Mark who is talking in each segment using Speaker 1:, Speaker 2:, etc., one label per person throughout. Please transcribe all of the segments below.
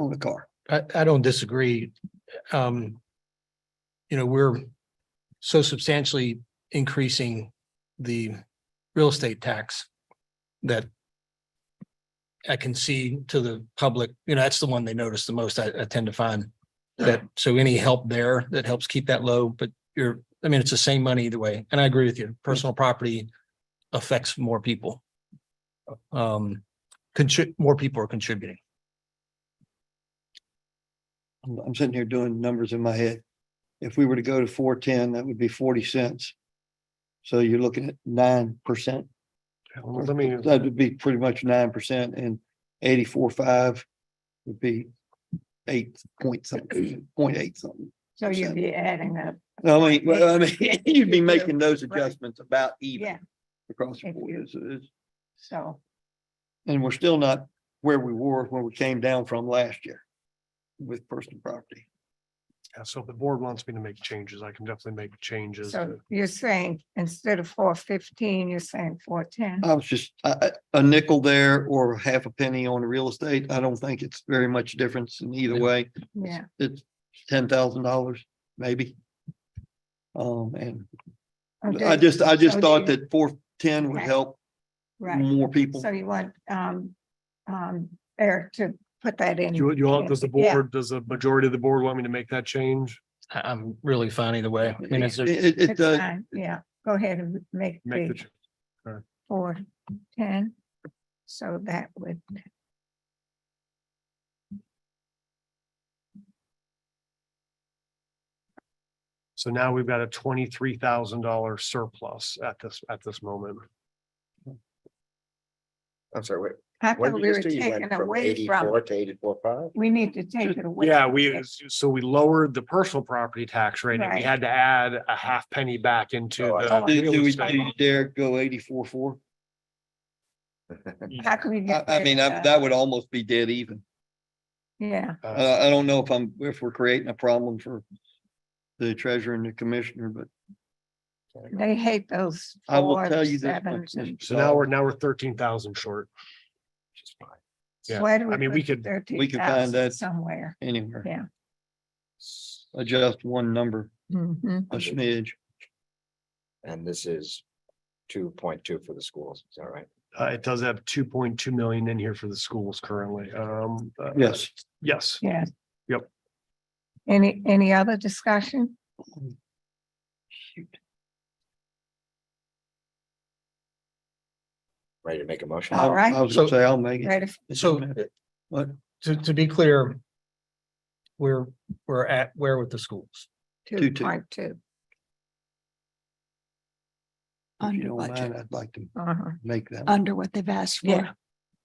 Speaker 1: own a car.
Speaker 2: I, I don't disagree. Um, you know, we're so substantially increasing the real estate tax that I can see to the public, you know, that's the one they notice the most, I, I tend to find that, so any help there that helps keep that low, but you're, I mean, it's the same money either way, and I agree with you, personal property affects more people. Um, contrib, more people are contributing.
Speaker 1: I'm- I'm sitting here doing numbers in my head. If we were to go to four ten, that would be forty cents. So you're looking at nine percent.
Speaker 3: Well, Let me,
Speaker 1: That would be pretty much nine percent and eighty-four five would be eight point something, point eight something.
Speaker 4: So you'd
Speaker 1: percent.
Speaker 4: be adding up
Speaker 1: No, I mean, well, I mean, you'd be
Speaker 4: Yeah.
Speaker 1: making those
Speaker 4: Right.
Speaker 1: adjustments about even
Speaker 4: Yeah.
Speaker 1: across the
Speaker 4: If
Speaker 1: board.
Speaker 4: you-
Speaker 1: It's- it's-
Speaker 4: so,
Speaker 1: And we're still not where we were when we came down from last year with personal property.
Speaker 3: yeah, so if the board wants me to make changes, I can definitely make changes.
Speaker 4: so
Speaker 3: to-
Speaker 4: you're saying instead of four fifteen, you're saying four ten?
Speaker 1: I was just, a, a nickel there or half a penny on real estate. I don't think it's very much difference in either
Speaker 2: Yeah.
Speaker 1: way.
Speaker 4: Yeah,
Speaker 1: It's ten thousand dollars, maybe. Um, and I
Speaker 4: Okay,
Speaker 1: just, uh, I just
Speaker 4: so
Speaker 1: thought
Speaker 4: do you-
Speaker 1: that four ten would
Speaker 4: Right.
Speaker 1: help
Speaker 4: Right,
Speaker 1: more people.
Speaker 4: so you want, um, um, Eric to put that in.
Speaker 3: Do You, you, want- does the
Speaker 4: Yeah.
Speaker 3: board, does the majority of the board want me to make that change?
Speaker 2: I- I'm really fine either way. I mean, it's
Speaker 1: It,
Speaker 2: a-
Speaker 1: it- it
Speaker 4: It's
Speaker 1: does,
Speaker 4: fine, Yeah, go ahead and make
Speaker 3: Make the,
Speaker 4: the
Speaker 3: ch-
Speaker 4: four ten, so that would.
Speaker 3: so now we've got a twenty-three thousand dollar surplus at this, at this moment.
Speaker 5: I'm sorry, wait.
Speaker 4: I
Speaker 5: what
Speaker 4: thought
Speaker 5: did
Speaker 4: we
Speaker 5: you
Speaker 4: were
Speaker 5: say? You went
Speaker 4: taking
Speaker 5: from
Speaker 4: away from,
Speaker 5: 84 To eighty-four five?
Speaker 4: we need to take it away.
Speaker 3: Yeah, we, so we lowered the personal property tax rate and we
Speaker 4: Right.
Speaker 3: had to add a half penny back into
Speaker 5: Oh, I
Speaker 3: the.
Speaker 5: see.
Speaker 1: do, do
Speaker 3: real
Speaker 1: we,
Speaker 3: estate.
Speaker 1: do you dare go eighty-four, four?
Speaker 4: How can we
Speaker 1: I,
Speaker 4: get?
Speaker 1: I
Speaker 4: rid
Speaker 1: mean,
Speaker 4: of
Speaker 1: I- that would almost be dead even.
Speaker 4: Yeah,
Speaker 3: Uh,
Speaker 1: Uh, I don't know if I'm, if we're creating a problem for the treasurer and the commissioner, but
Speaker 4: they hate those.
Speaker 1: I will
Speaker 4: fours,
Speaker 1: tell you this.
Speaker 4: sevens,
Speaker 1: much,
Speaker 4: and-
Speaker 1: Mr.
Speaker 3: So now
Speaker 1: Saul.
Speaker 3: we're, now we're thirteen thousand short. Yeah,
Speaker 4: Why do
Speaker 3: I mean, we
Speaker 4: put
Speaker 3: could-
Speaker 1: we could find
Speaker 4: 13,000
Speaker 1: that-
Speaker 4: Somewhere.
Speaker 1: anywhere.
Speaker 4: Yeah.
Speaker 1: Adjust one number,
Speaker 4: Mhm.
Speaker 1: a smidge.
Speaker 5: And this is two point two for the schools, is that right?
Speaker 3: Uh, it does have two point two million in here for the schools currently. Um, uh,
Speaker 1: Yes.
Speaker 3: yes,
Speaker 4: Yeah.
Speaker 3: Yep.
Speaker 4: Any, any other discussion?
Speaker 5: Ready to make a motion?
Speaker 1: I-
Speaker 4: All right.
Speaker 1: I was gonna
Speaker 2: So-
Speaker 1: say, I'll make it.
Speaker 4: Ready for-
Speaker 1: It
Speaker 2: So-
Speaker 1: doesn't matter. But
Speaker 2: to, to be clear, we're, we're at, where with the schools?
Speaker 1: Two,
Speaker 4: two
Speaker 1: two.
Speaker 4: point two?
Speaker 1: if you
Speaker 6: Under
Speaker 1: don't mind,
Speaker 6: budget,
Speaker 1: I'd like to
Speaker 4: Uh-huh.
Speaker 1: make that.
Speaker 6: under what they've asked
Speaker 4: Yeah.
Speaker 6: for.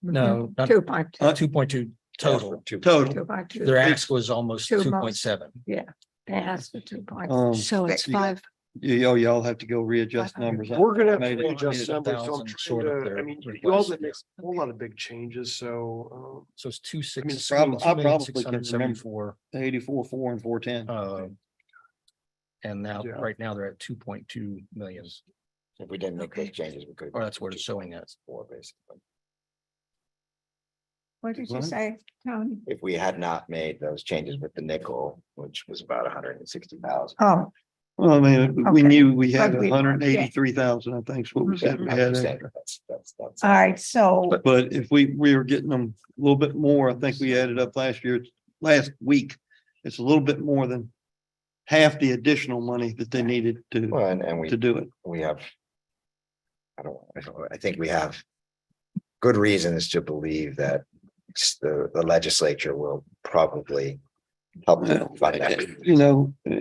Speaker 6: Mm-hmm.
Speaker 2: No, not
Speaker 4: Two point
Speaker 1: Uh,
Speaker 4: two,
Speaker 2: two point two total.
Speaker 5: Two.
Speaker 4: two
Speaker 1: Total,
Speaker 4: point two.
Speaker 2: Their ask was almost
Speaker 4: Two
Speaker 2: two
Speaker 4: months.
Speaker 2: point seven.
Speaker 4: They asked for two point.
Speaker 1: um,
Speaker 6: So it's
Speaker 1: you got-
Speaker 6: five,
Speaker 1: you, y'all- y'all have to go readjust
Speaker 4: Five hundred.
Speaker 1: numbers.
Speaker 3: we're gonna have to
Speaker 1: Maybe
Speaker 3: readjust numbers. So I'm
Speaker 2: 100,000
Speaker 3: trying
Speaker 2: short of
Speaker 3: to- I
Speaker 2: their
Speaker 3: mean, you
Speaker 2: request.
Speaker 3: all did make a whole lot of big changes, so.
Speaker 2: So it's two
Speaker 3: I mean,
Speaker 2: six.
Speaker 1: prob- I probably can remember.
Speaker 2: 2,674,
Speaker 1: Eighty-four, four and four ten.
Speaker 2: uh, And now,
Speaker 3: Yeah.
Speaker 2: right now, they're at two point two million,
Speaker 5: If we didn't make those
Speaker 4: Okay.
Speaker 5: changes, we could.
Speaker 2: or that's what it's showing us.
Speaker 5: Four, basically.
Speaker 4: What did you
Speaker 1: Right.
Speaker 4: say, Tony?
Speaker 5: If we had not made those changes with the nickel, which was about hundred and sixty thousand.
Speaker 4: Oh,
Speaker 1: Well, I mean, we
Speaker 4: Okay.
Speaker 1: knew we had
Speaker 4: But we-
Speaker 1: hundred and eighty-three thousand, I think is what
Speaker 2: Mhm.
Speaker 1: we said we had. extra.
Speaker 5: That's, that's, that's.
Speaker 4: all right, so,
Speaker 1: But if we, we were getting them a little bit more, I think we added up last year, last week. It's a little bit more than half the additional money that they needed to,
Speaker 5: Well, and, and we
Speaker 1: to do it.
Speaker 5: we have. I don't, I don't, I think we have good reasons to believe that s- the, the legislature will probably help.
Speaker 1: Well,
Speaker 5: them fund that.
Speaker 1: You know, uh,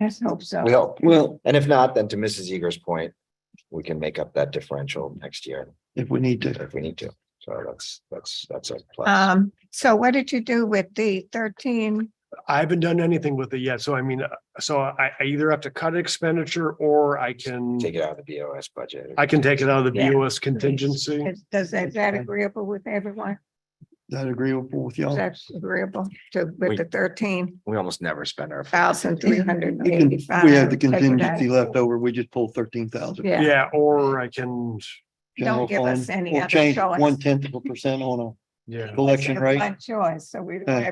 Speaker 4: let's hope so.
Speaker 5: We hope.
Speaker 1: well,
Speaker 5: And if not, then to Mrs. Eager's point, we can make up that differential next year
Speaker 1: if we need to,
Speaker 5: if we need to. So that's, that's, that's a plus.
Speaker 4: Um, so what did you do with the thirteen?
Speaker 3: uh, I haven't done anything with it yet, so I mean, uh, so I, I either have to cut expenditure or I can,
Speaker 5: Take it out of the BOS budget.
Speaker 3: I can take it out of the
Speaker 4: Yeah.
Speaker 3: BOS contingency.
Speaker 4: Is- Does, is that agreeable with everyone?
Speaker 1: that agreeable with y'all.
Speaker 4: Is that agreeable to,
Speaker 5: We-
Speaker 4: with the thirteen?
Speaker 5: We almost never spend our.
Speaker 4: thousand three hundred
Speaker 1: We can-
Speaker 4: and eighty-five.
Speaker 1: We have the contingency left over. We just pulled thirteen thousand.
Speaker 4: Yeah,
Speaker 3: Yeah, or I can,
Speaker 4: don't give us any other
Speaker 1: Change
Speaker 4: choice.
Speaker 1: one tenth of a percent on
Speaker 3: yeah.
Speaker 1: a collection rate.
Speaker 4: one choice, so we don't
Speaker 1: Uh,
Speaker 4: have